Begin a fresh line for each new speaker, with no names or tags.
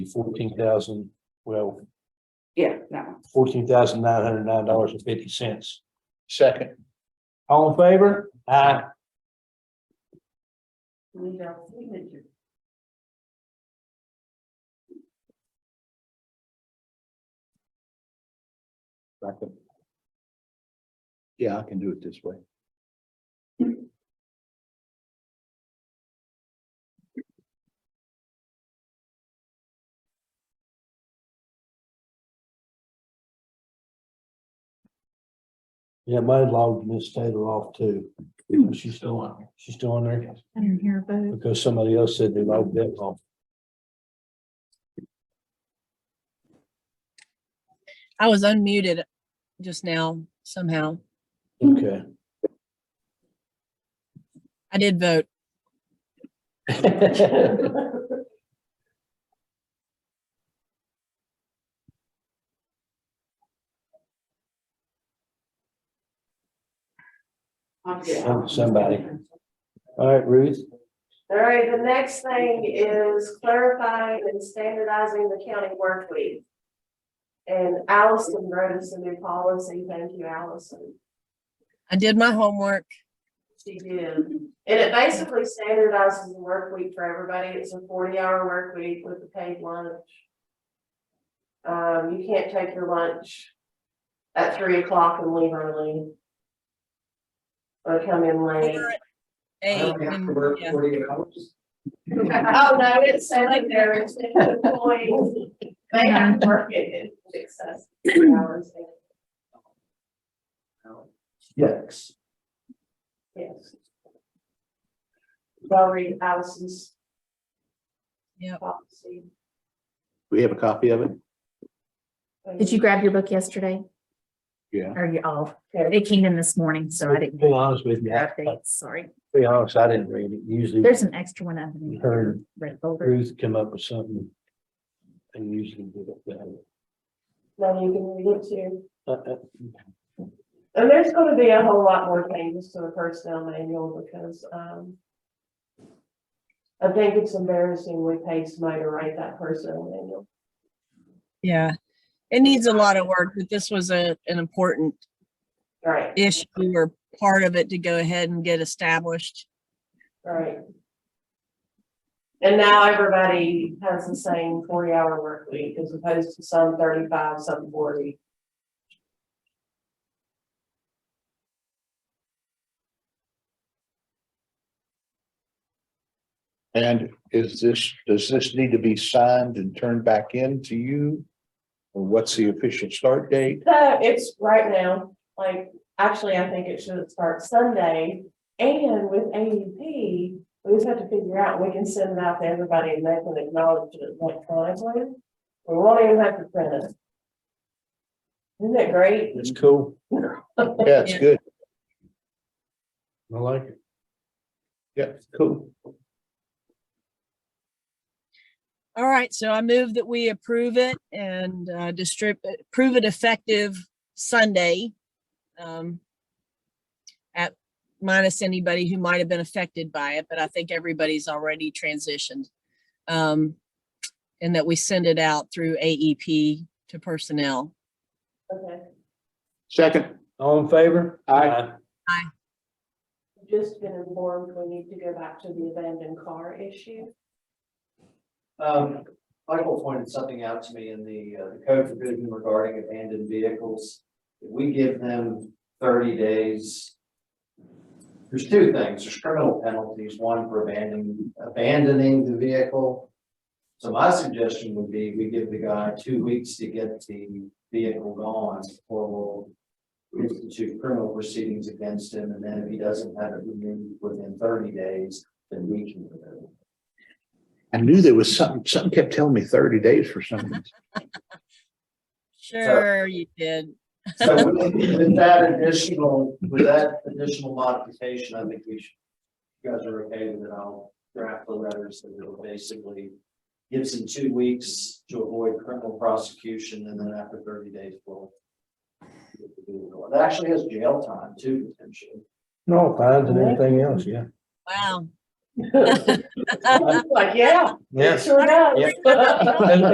fourteen thousand, well,
Yeah, that one.
fourteen thousand nine hundred nine dollars and fifty cents.
Second,
All in favor? Aye.
We need our signature.
I can- Yeah, I can do it this way.
Yeah, my logged Miss Taylor off too.
Hmm.
She's still on, she's still on there
I didn't hear a vote.
because somebody else said they logged that off.
I was unmuted just now somehow.
Okay.
I did vote.
I'm good.
Some- somebody. All right, Ruth,
All right, the next thing is clarifying and standardizing the county work week. And Allison wrote us a new policy. Thank you, Allison.
I did my homework.
She did. And it basically standardizes the work week for everybody. It's a forty hour work week with a paid lunch. Um, you can't take your lunch at three o'clock and leave early. Or come in late.
Or at Eight. and- yeah.
Oh, no, it's like there, it's employees, they have to work in excess hours.
yes.
Yes. I'll read Allison's
Yep.
policy.
We have a copy of it?
Did you grab your book yesterday?
Yeah.
Or you all, it came in this morning, so I didn't.
Be honest with you, I- I-
Updates, sorry.
be honest, I didn't read it. Usually
There's an extra one underneath.
heard
Red folder.
Ruth come up with something. And usually did it that.
No, you can read it too.
Uh, uh,
And there's gonna be a whole lot more changes to the personnel manual because, um. I think it's embarrassing we paid somebody to write that personnel manual.
Yeah. It needs a lot of work, but this was a, an important
Right,
issue or part of it to go ahead and get established.
right. And now everybody has the same forty hour work week as opposed to some thirty five, some forty.
And is this, does this need to be signed and turned back in to you? Or what's the official start date?
No, it's right now, like, actually, I think it should start Sunday, and with AUP, we just have to figure out, we can send it out to everybody and they can acknowledge it electronically. We won't even have to print it. Isn't that great?
It's cool.
Yeah, it's good.
I like it.
Yeah.
Cool.
All right. So I move that we approve it and, uh, distribute, prove it effective Sunday. Um, at minus anybody who might have been affected by it, but I think everybody's already transitioned. Um, and that we send it out through AEP to personnel.
Okay,
Second,
All in favor?
Aye.
I've just been informed, we need to go back to the abandoned car issue.
Um, Michael pointed something out to me in the, uh, the code provision regarding abandoned vehicles. If we give them thirty days. There's two things, there's criminal penalties, one for abandoning, abandoning the vehicle. So my suggestion would be we give the guy two weeks to get the vehicle gone before we'll institute criminal proceedings against him, and then if he doesn't have it removed within thirty days, then we can remove it.
I knew there was something, something kept telling me thirty days for something.
Sure you did.
So with with that additional, with that additional modification, I think we should, you guys are okay with it, I'll draft the letters that will basically gives them two weeks to avoid criminal prosecution and then after thirty days, we'll it actually has jail time too, potentially.
No, fines and everything else, yeah.
Wow.
Like, yeah, it
Yes.
sure does.
And-